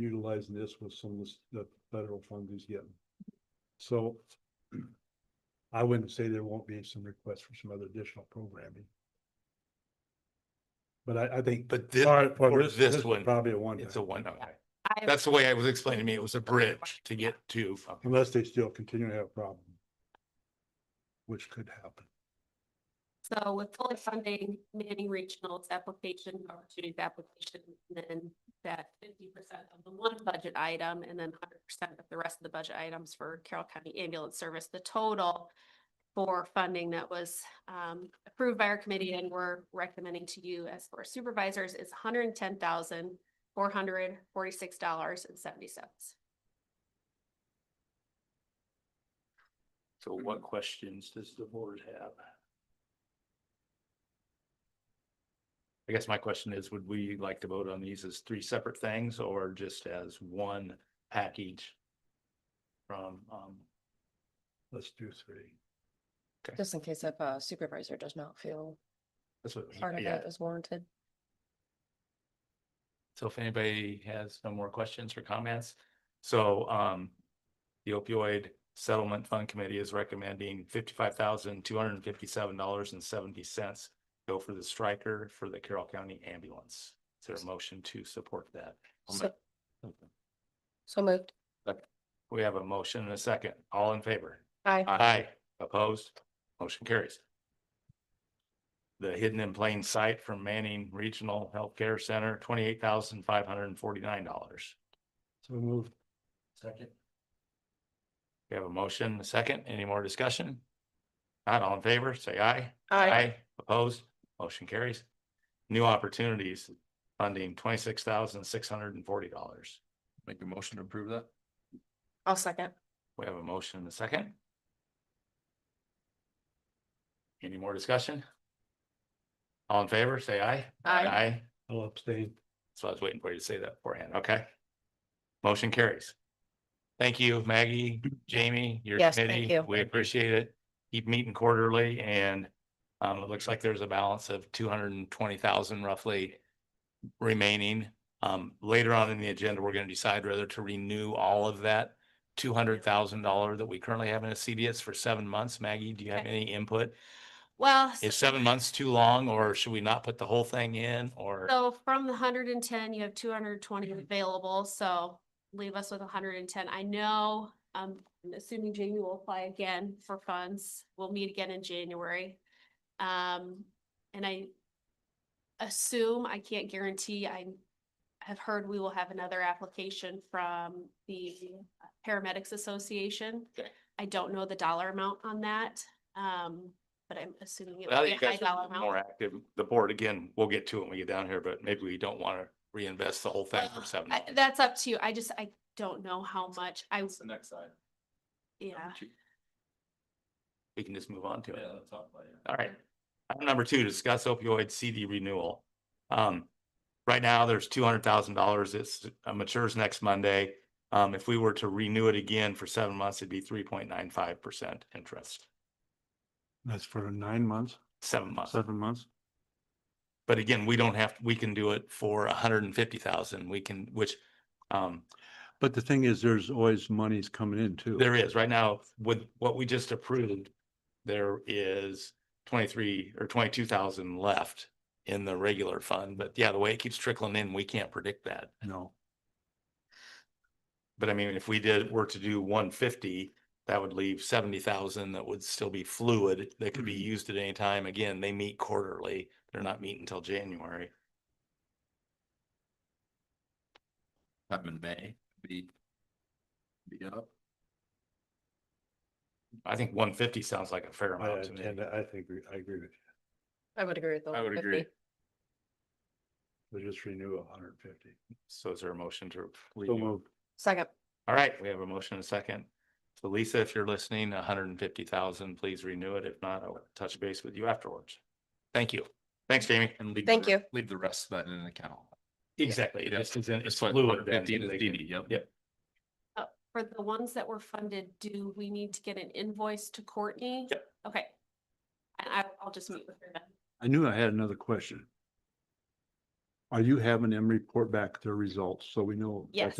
utilizing this with some of this- the federal funds he's getting. So I wouldn't say there won't be some requests for some other additional programming. But I, I think. But this, All right, well, for this is one, Probably a one, it's a one, okay. I, That's the way it was explained to me. It was a bridge to get to. okay. unless they still continue to have a problem. Which could happen. so with fully funding Manning Regional's application, opportunities application, then that fifty percent of the one budget item and then hundred percent of the rest of the budget items for Carroll County Ambulance Service, the total for funding that was um approved by our committee and we're recommending to you as for supervisors is hundred and ten thousand four hundred forty-six dollars and seventy cents. So what questions does the board have? I guess my question is, would we like to vote on these as three separate things or just as one package? From, um, Let's do three. Just in case if a supervisor does not feel that's what, part of yeah. that is warranted. So if anybody has no more questions or comments, so um. The opioid settlement fund committee is recommending fifty-five thousand, two hundred and fifty-seven dollars and seventy cents. Go for the striker for the Carroll County ambulance. Is there a motion to support that? So so moved. We have a motion and a second. All in favor? Aye. Aye. Opposed? Motion carries. The hidden in plain sight from Manning Regional Healthcare Center, twenty-eight thousand, five hundred and forty-nine dollars. So move. Second. We have a motion, a second. Any more discussion? Not all in favor, say aye. Opposed, motion carries. New opportunities funding twenty-six thousand six hundred and forty dollars. Make a motion to approve that? I'll second. We have a motion and a second. Any more discussion? All in favor, say aye. Aye. Aye. I'll abstain. So I was waiting for you to say that beforehand. Okay. Motion carries. Thank you, Maggie, Jamie, your Yes, thank committee. you. We appreciate it. Keep meeting quarterly and um, it looks like there's a balance of two hundred and twenty thousand roughly remaining. Um, later on in the agenda, we're going to decide whether to renew all of that two hundred thousand dollar that we currently have in a CDS for seven months. Maggie, do you have Okay. any input? Well. Is seven months too long or should we not put the whole thing in or? So from the hundred and ten, you have two hundred and twenty Mm-hmm. available, so leave us with hundred and ten. I know, um, I'm assuming Jamie will apply again for funds. We'll meet again in January. Um, and I assume, I can't guarantee, I have heard we will have another application from the Paramedics Association. Okay. I don't know the dollar amount on that, um, but I'm assuming it will Well, be you a high guys dollar are amount. more active. The board, again, we'll get to it when we get down here, but maybe we don't want to reinvest the whole thing for Well, seven. I- dollars. That's up to you. I just, I don't know how much I, the next side. yeah. We can just move on to it. let's talk about it. All right. Item number two, discuss opioid CD renewal. Um, right now, there's two hundred thousand dollars. It's uh, matures next Monday. Um, if we were to renew it again for seven months, it'd be three point nine five percent interest, That's for nine months, seven months. seven months. But again, we don't have, we can do it for a hundred and fifty thousand. We can, which, um, But the thing is, there's always monies coming in too. There is, right now, with what we just approved, there is twenty-three or twenty-two thousand left in the regular fund, but yeah, the way it keeps trickling in, we can't predict that. No. But I mean, if we did, were to do one fifty, that would leave seventy thousand that would still be fluid, that could be Mm-hmm. used at any time. Again, they meet quarterly, they're not meeting until January. Time in May, be. Be up. I think one fifty sounds like a fair I, amount to me. and I think, we- I agree with you. I would agree with the I would 150. agree. We just renew a hundred and fifty. So is there a motion to? So renew? moved. Second. All right, we have a motion and a second. So Lisa, if you're listening, a hundred and fifty thousand, please renew it. If not, I'll touch base with you afterwards. Thank you. Thanks, Jamie. And leave. Thank the- you. Leave the rest of that in an account. Exactly. It Yeah. just is, it's That's what fluid. then, 150 so is they DD, can- yep. Yep. For the ones that were funded, do we need to get an invoice to Courtney? Yep. Okay. And I, I'll just meet with her then. I knew I had another question. Are you having them report back their results so we know? Yes.